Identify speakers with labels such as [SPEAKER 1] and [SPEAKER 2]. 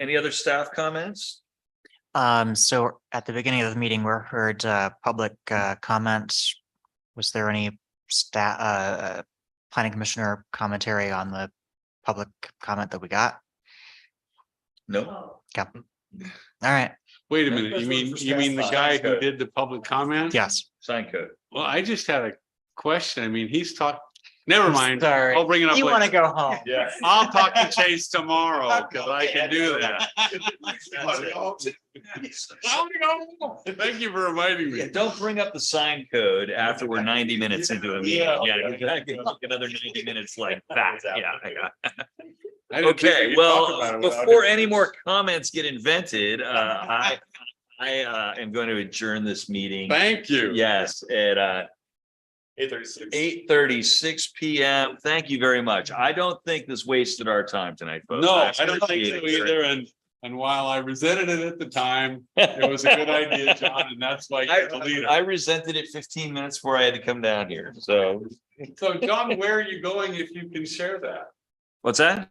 [SPEAKER 1] Any other staff comments?
[SPEAKER 2] Um, so at the beginning of the meeting, we heard uh public uh comments. Was there any sta- uh uh, planning commissioner commentary on the public comment that we got?
[SPEAKER 1] No.
[SPEAKER 2] All right,
[SPEAKER 3] Wait a
[SPEAKER 1] That's
[SPEAKER 3] minute,
[SPEAKER 1] just
[SPEAKER 3] you
[SPEAKER 1] one
[SPEAKER 3] mean,
[SPEAKER 1] for
[SPEAKER 3] you mean the
[SPEAKER 1] staff.
[SPEAKER 3] guy who
[SPEAKER 1] Good.
[SPEAKER 3] did the public comment?
[SPEAKER 2] yes.
[SPEAKER 1] Sign code.
[SPEAKER 3] Well, I just had a question. I mean, he's talked, never
[SPEAKER 2] I'm
[SPEAKER 3] mind.
[SPEAKER 2] sorry.
[SPEAKER 3] I'll bring it up
[SPEAKER 2] You want to
[SPEAKER 3] later.
[SPEAKER 2] go home?
[SPEAKER 1] Yeah.
[SPEAKER 3] I'll talk to Chase tomorrow because I can do that. That's it. Thank you for reminding
[SPEAKER 1] Yeah,
[SPEAKER 3] me.
[SPEAKER 1] don't bring up the sign code after we're ninety minutes into a meeting.
[SPEAKER 3] Yeah.
[SPEAKER 1] Yeah, exactly. Another ninety minutes like that. Yeah. I got-
[SPEAKER 3] I didn't think
[SPEAKER 1] Okay,
[SPEAKER 3] we could talk about
[SPEAKER 1] well,
[SPEAKER 3] it without
[SPEAKER 1] before
[SPEAKER 3] it.
[SPEAKER 1] any more comments get invented, uh, I, I, uh, am going to adjourn this meeting.
[SPEAKER 3] Thank you.
[SPEAKER 1] Yes, at, uh,
[SPEAKER 4] Eight thirty-six.
[SPEAKER 1] eight thirty-six PM. Thank you very much. I don't think this wasted our time tonight, folks.
[SPEAKER 3] No, I don't think
[SPEAKER 1] appreciate
[SPEAKER 3] so
[SPEAKER 1] it very
[SPEAKER 3] either. And, and while I resented it at the time, it was a good idea, John, and that's why you're the
[SPEAKER 1] I,
[SPEAKER 3] leader.
[SPEAKER 1] I resented it fifteen minutes before I had to come down here, so.
[SPEAKER 3] So John, where are you going if you can share that?
[SPEAKER 1] What's that?